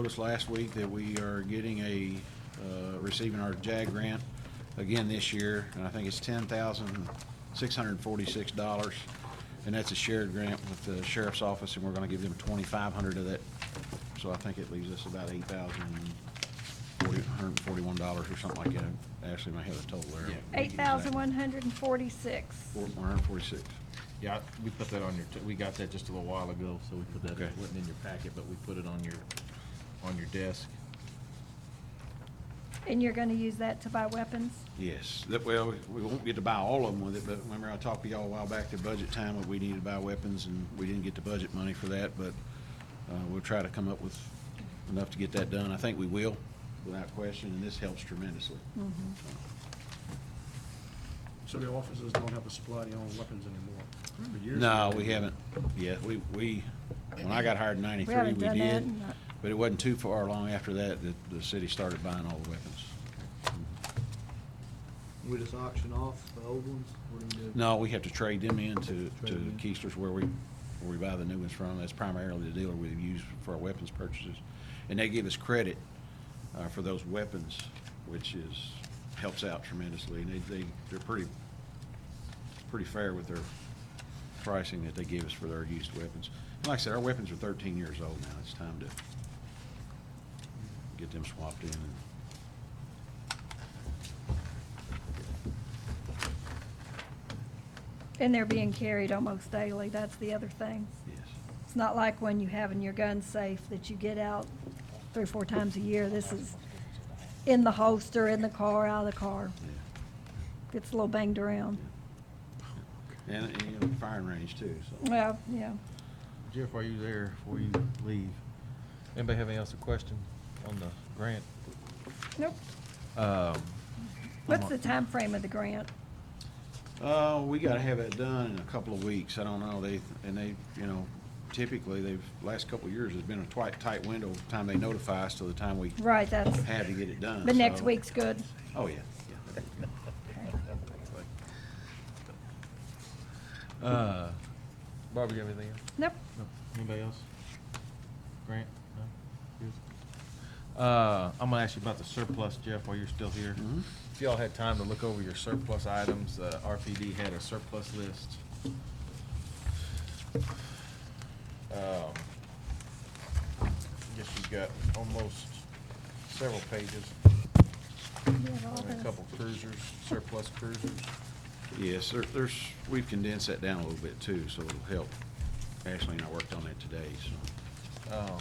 Noticed last week that we are getting a, uh, receiving our JAG grant again this year, and I think it's ten thousand six hundred and forty-six dollars. And that's a shared grant with the sheriff's office, and we're gonna give them twenty-five hundred of that. So I think it leaves us about eight thousand forty, hundred and forty-one dollars or something like that. Ashley may have a total there. Eight thousand one hundred and forty-six. Four- one hundred and forty-six. Yeah, we put that on your, t- we got that just a little while ago, so we put that, Okay. it wasn't in your packet, but we put it on your, on your desk. And you're gonna use that to buy weapons? Yes, that, well, we won't get to buy all of them with it, but remember I talked to y'all a while back at budget time, that we needed to buy weapons, and we didn't get the budget money for that, but, uh, we'll try to come up with enough to get that done. I think we will, without question, and this helps tremendously. So the officers don't have to supply their own weapons anymore? Remember years No, ago, we they- haven't, yeah, we, we, when I got hired in ninety-three, haven't we done that did, in a- but it wasn't too far long after that, that the city started buying all the weapons. We just auction off the old ones? What do you do? No, we have to trade them in to, to Trade them in. Keisters where we, where we buy the new ones from. That's primarily the dealer we use for our weapons purchases. And they give us credit, uh, for those weapons, which is, helps out tremendously. And they, they, they're pretty, pretty fair with their pricing that they give us for their used weapons. And Like I said, our weapons are thirteen years old now. It's time to get them swapped in and And they're being carried almost daily, that's the other thing. Yes. It's not like when you have in your gun safe that you get out three, or four times a year. This is in the holster, in the car, out of the car. Yeah. Gets a little banged around. And, and, you know, firing range too, so. Well, yeah. Jeff, are you there before you leave? Anybody have any else a question on the grant? Nope. Um, What's the time frame of the grant? Uh, we gotta have it done in a couple of weeks. I don't know, they, and they, you know, typically, they've, last couple of years, there's been a tight, tight window of time they notify us to the time we Right, that's, have to get it done. the next so- week's good. Oh, yeah, yeah. Uh, Barbara, you have anything else? Nope. No. Anybody else? Grant? No? Yours? Uh, I'm gonna ask you about the surplus, Jeff, while you're still here. Mhm. If y'all had time to look over your surplus items, uh, RPD had a surplus list. Um, Guess you've got almost several pages, You have all a this. couple cruisers, surplus cruisers. Yes, there, there's, we've condensed that down a little bit too, so it'll help. Ashley and I worked on it today, so. Um,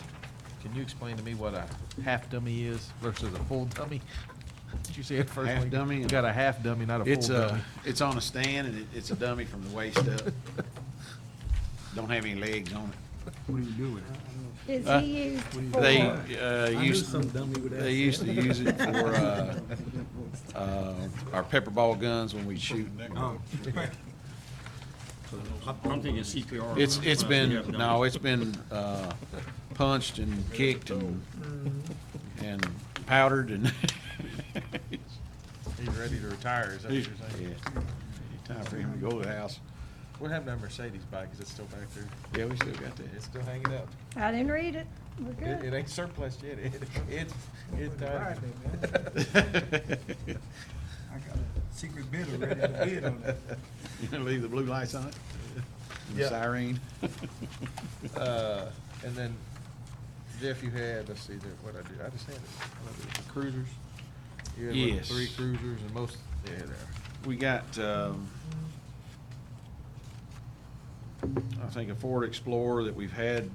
Can you explain to me what a half dummy is versus a full dummy? Did you say it first? Half Lee? dummy You and- got a half dummy, not a full It's uh, dummy. a, it's on a stand and it, it's a dummy from the waist up. Don't have any legs on it. What do you do with it? Is Uh, he used for? They, uh, I knew used. some dummy would ask They that. used to use it for, uh, uh, our pepper ball guns when we shoot. Oh. I'm thinking CPR. It's, it's been, Yeah, no, it's been, uh, punched and kicked and, Mm-hmm. and powdered and. He's ready to retire, is that what Yeah. you're saying? Time for him to go to the house. What happened to that Mercedes bike? Is it still back there? Yeah, we still got It's that. still hanging up. I didn't read it. We're It, it good. ain't surplus yet. It, it, it, uh, Right, man. I got a secret bidder ready to bid on that. You gonna leave the blue lights on it? And the Yeah. Siren? uh, and then Jeff, you had, let's see, there- what I do, I just had it. What I do, the Cruisers? You had what, Yes. Three cruisers and most, yeah, there. We got, um, I think a Ford Explorer that we've had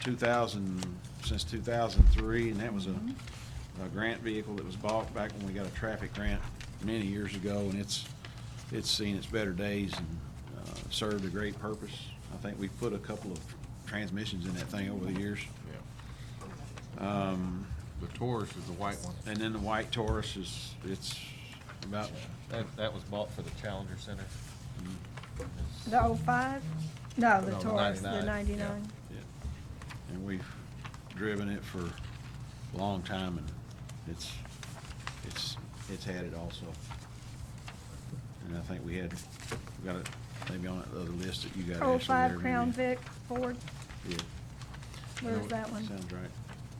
two thousand, since two thousand three, and that was a, a grant vehicle that was bought back when we got a traffic grant many years ago, and it's, it's seen its better days and, uh, served a great purpose. I think we've put a couple of transmissions in that thing over the years. Yeah. Um, The Taurus is the white one. and then the white Taurus is, it's about, That, that was bought for the Challenger Center. Mm-hmm. The oh five? No, the No, the Taurus, the 99, yeah. ninety-nine. Yeah, And we've driven it for a long time and it's, it's, it's had it also. And I think we had, we got it maybe on that other list that you got actually there. Oh five maybe. Crown Vic Ford, Yeah, where's that one? sounds right.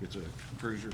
It's a cruiser.